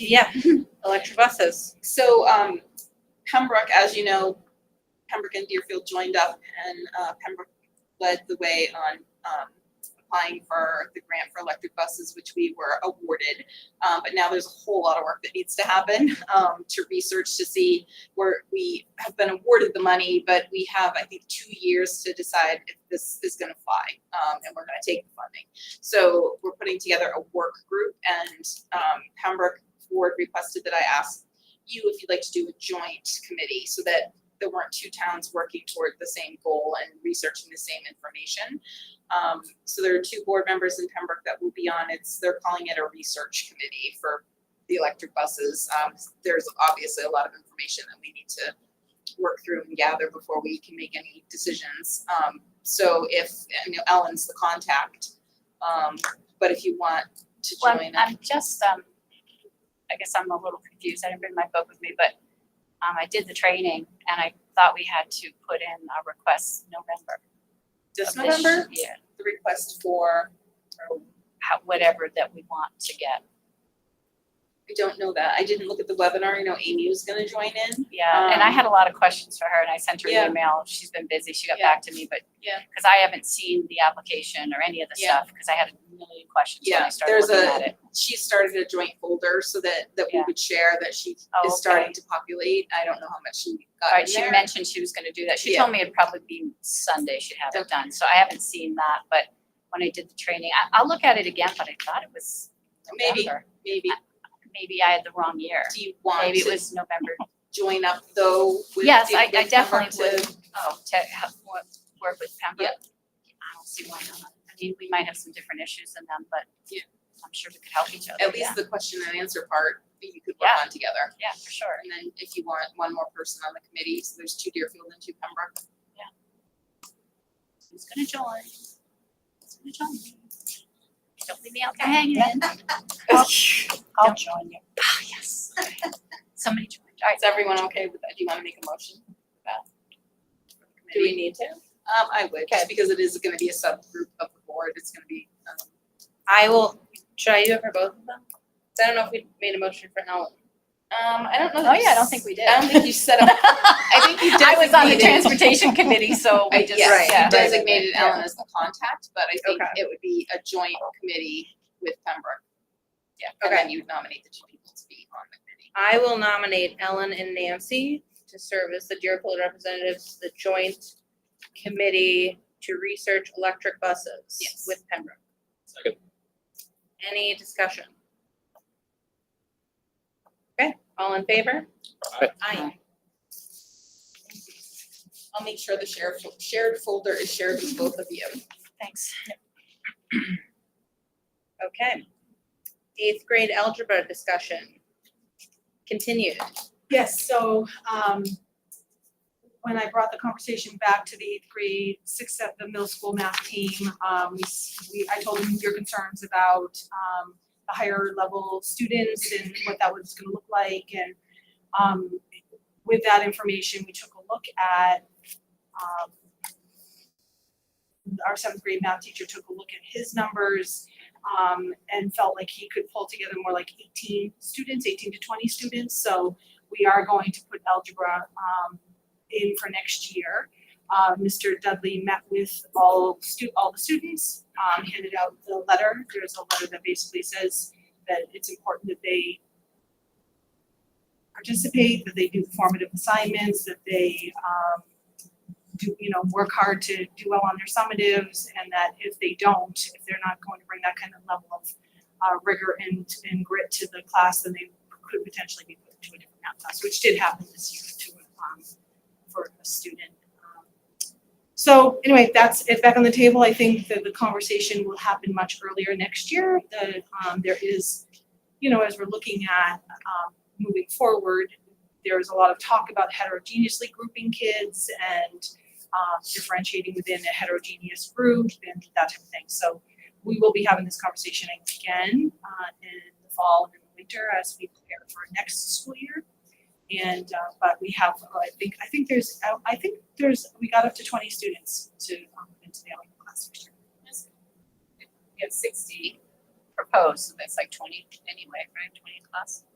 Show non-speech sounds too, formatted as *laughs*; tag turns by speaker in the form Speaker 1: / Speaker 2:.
Speaker 1: Yeah, electric buses.
Speaker 2: So um, Pembroke, as you know, Pembroke and Deerfield joined up and uh, Pembroke led the way on um, applying for the grant for electric buses, which we were awarded. Um, but now there's a whole lot of work that needs to happen *laughs* um, to research to see where we have been awarded the money, but we have, I think, two years to decide if this is going to fly um, and we're going to take the funding. So we're putting together a work group and um, Pembroke Board requested that I ask you if you'd like to do a joint committee so that there weren't two towns working toward the same goal and researching the same information. Um, so there are two board members in Pembroke that will be on, it's, they're calling it a research committee for the electric buses. Um, there's obviously a lot of information that we need to work through and gather before we can make any decisions. Um, so if, you know, Ellen's the contact, um, but if you want to
Speaker 3: Well,
Speaker 2: join
Speaker 3: I'm-
Speaker 2: us.
Speaker 3: I'm just, um, I guess I'm a little confused. I didn't bring my book with me, but, um, I did the training and I thought we had to put in our request November.
Speaker 2: This
Speaker 3: of this
Speaker 2: November,
Speaker 3: year,
Speaker 2: the request for, or
Speaker 3: how, whatever that we want to get.
Speaker 2: I don't know that. I didn't look at the webinar. I know Amy was gonna join in.
Speaker 3: Yeah, and I
Speaker 2: Um,
Speaker 3: had a lot of questions for her and I sent her
Speaker 2: yeah.
Speaker 3: an email. She's been busy. She got
Speaker 2: Yeah.
Speaker 3: back to me, but.
Speaker 2: Yeah.
Speaker 3: Cause I haven't seen the application or any of the
Speaker 2: Yeah.
Speaker 3: stuff, cause I had a million questions when
Speaker 2: Yeah,
Speaker 3: I started
Speaker 2: there's
Speaker 3: looking
Speaker 2: a-
Speaker 3: at it.
Speaker 2: She started a joint folder so that, that we
Speaker 3: Yeah.
Speaker 2: would share that she
Speaker 3: Oh,
Speaker 2: is
Speaker 3: okay.
Speaker 2: starting to populate. I don't know how much she got
Speaker 3: Right,
Speaker 2: in
Speaker 3: she
Speaker 2: there.
Speaker 3: mentioned she was gonna do that. She
Speaker 2: Yeah.
Speaker 3: told me it'd probably be Sunday she'd have it
Speaker 2: Okay.
Speaker 3: done, so I haven't seen that, but when I did the training, I, I'll look at it again, but I thought it was
Speaker 2: Maybe.
Speaker 3: November.
Speaker 2: Maybe,
Speaker 3: Maybe I had the wrong year.
Speaker 2: do you want
Speaker 3: uh, Maybe it
Speaker 2: to
Speaker 3: was November.
Speaker 2: join up though with?
Speaker 3: Yes,
Speaker 2: the-
Speaker 3: I, I
Speaker 2: with Pembroke
Speaker 3: definitely would,
Speaker 2: to-
Speaker 3: oh, to have, wo- work with Pembroke. I don't see why not. I mean, we might have some different issues in them, but
Speaker 2: Yeah.
Speaker 3: I'm sure we could help each other,
Speaker 2: At
Speaker 3: yeah,
Speaker 2: least the question and answer part, that you could work
Speaker 3: Yeah.
Speaker 2: on together.
Speaker 3: yeah, for sure.
Speaker 2: And then if you want one more person on the committee, so there's two Deerfield and two Pembroke.
Speaker 3: Who's gonna join? Who's gonna join me? Don't leave me out there hanging. I'll
Speaker 4: join you.
Speaker 3: Ah, yes. Somebody joined. All right,
Speaker 2: Is everyone okay with that? Do you wanna make a motion? for that? For the committee?
Speaker 4: need to?
Speaker 2: Um, I would, just because it is gonna be a subgroup of the board, it's gonna be, um,
Speaker 1: I will, should I do it for both of them? 'Cause I don't know if we made a motion for Helen.
Speaker 2: um, I don't know.
Speaker 3: Oh,
Speaker 2: that you
Speaker 3: yeah, I don't
Speaker 2: s-
Speaker 3: think we did.
Speaker 2: I don't think you set up, *laughs* I think you
Speaker 3: I was on the
Speaker 2: designated-
Speaker 3: transportation committee, so
Speaker 2: I
Speaker 3: we
Speaker 2: just,
Speaker 3: just,
Speaker 1: Right,
Speaker 2: yeah,
Speaker 3: yeah.
Speaker 2: you designated
Speaker 3: Yeah.
Speaker 2: Ellen as the contact, but I think
Speaker 1: Okay.
Speaker 2: it would be a joint committee with Pembroke. Yeah,
Speaker 1: Okay.
Speaker 2: and then you would nominate the two people to be on the committee.
Speaker 1: I will nominate Ellen and Nancy to serve as the Deerfield representatives, to the joint committee to research electric buses
Speaker 2: Yes.
Speaker 1: with Pembroke.
Speaker 5: Second.
Speaker 1: Any discussion? Okay, all in favor?
Speaker 5: Aye.
Speaker 1: Aye.
Speaker 2: I'll make sure the shared, fo- shared folder is shared with both of you.
Speaker 3: Thanks.
Speaker 1: Okay. Eighth grade algebra discussion continued.
Speaker 4: Yes, so um when I brought the conversation back to the eighth grade, sixth, seventh, the middle school math team, um we s- we, I told them your concerns about um the higher level students and what that was gonna look like and um with that information, we took a look at um our seventh grade math teacher took a look at his numbers um and felt like he could pull together more like eighteen students, eighteen to twenty students, so we are going to put algebra um in for next year. Uh Mr. Dudley met with all stu- all the students, um handed out the letter. There's a letter that basically says that it's important that they participate, that they do formative assignments, that they um do, you know, work hard to do well on their summatives and that if they don't, if they're not going to bring that kind of level of uh rigor and and grit to the class, then they could potentially be put to a different math class, which did happen this year to um for a student. Um, So anyway, that's it back on the table. I think that the conversation will happen much earlier next year. The um there is, you know, as we're looking at um moving forward, there is a lot of talk about heterogeneously grouping kids and um differentiating within a heterogeneous group and that type of thing. So we will be having this conversation again uh in the fall and in the winter as we prepare for next school year. And uh but we have, uh, I think, I think there's, I- I think there's, we got up to twenty students to um into the algebra class next year.
Speaker 3: We have sixty proposed, so that's like twenty anyway, right, twenty in class?